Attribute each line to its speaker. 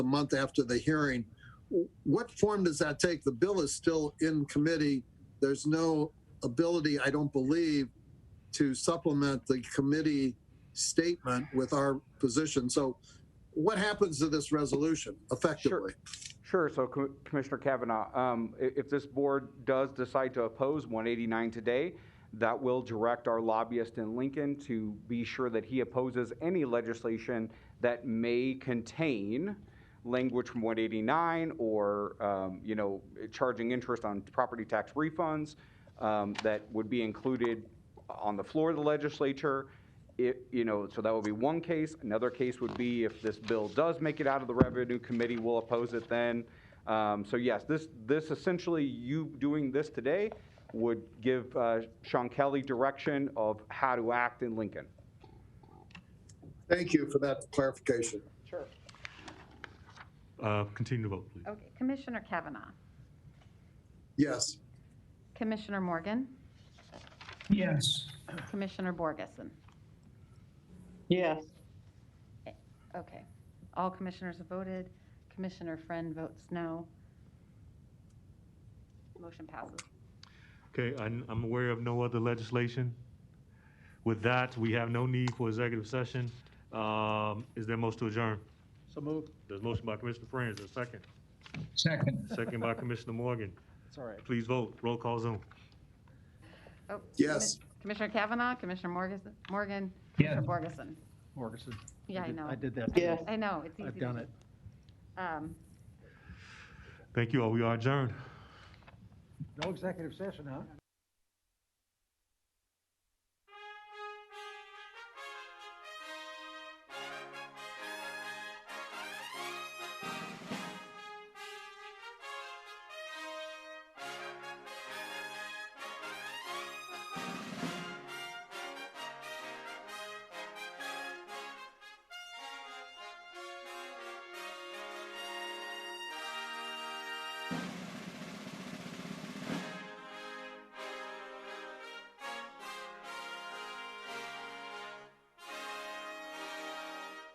Speaker 1: a month after the hearing. What form does that take? The bill is still in committee. There's no ability, I don't believe, to supplement the committee statement with our position. So what happens to this resolution effectively?
Speaker 2: Sure, so Com- Commissioner Kavanaugh, um, i- if this board does decide to oppose 189 today, that will direct our lobbyist in Lincoln to be sure that he opposes any legislation that may contain language from 189 or, um, you know, charging interest on property tax refunds um, that would be included on the floor of the legislature. It, you know, so that would be one case. Another case would be if this bill does make it out of the revenue committee, we'll oppose it then. Um, so yes, this, this essentially, you doing this today would give uh, Sean Kelly direction of how to act in Lincoln.
Speaker 1: Thank you for that clarification.
Speaker 2: Sure.
Speaker 3: Uh, Continue to vote, please.
Speaker 4: Okay, Commissioner Kavanaugh,
Speaker 1: Yes.
Speaker 4: Commissioner Morgan,
Speaker 5: Yes.
Speaker 4: Commissioner Borgeson.
Speaker 5: Yes.
Speaker 4: Okay, all commissioners have voted. Commissioner Friend votes no. Motion passes.
Speaker 3: Okay, I'm I'm aware of no other legislation. With that, we have no need for executive session. Um, Is there a motion to adjourn?
Speaker 5: So moved.
Speaker 3: There's a motion by Commissioner Franz, there's a second.
Speaker 5: Second.
Speaker 3: Second by Commissioner Morgan.
Speaker 5: It's all right.
Speaker 3: Please vote, roll call Zoom.
Speaker 4: Oh,
Speaker 1: Yes.
Speaker 4: Commi- Commissioner Kavanaugh, Commissioner Morges- Morgan,
Speaker 5: Yes.
Speaker 4: Commissioner Borgeson.
Speaker 5: Morgeson.
Speaker 4: Yeah, I
Speaker 5: did-
Speaker 4: know.
Speaker 5: I did that.
Speaker 4: Yeah. I know, it's easy.
Speaker 5: I've done it.
Speaker 4: Um,
Speaker 3: Thank you all, we are adjourned.
Speaker 5: No executive session, huh?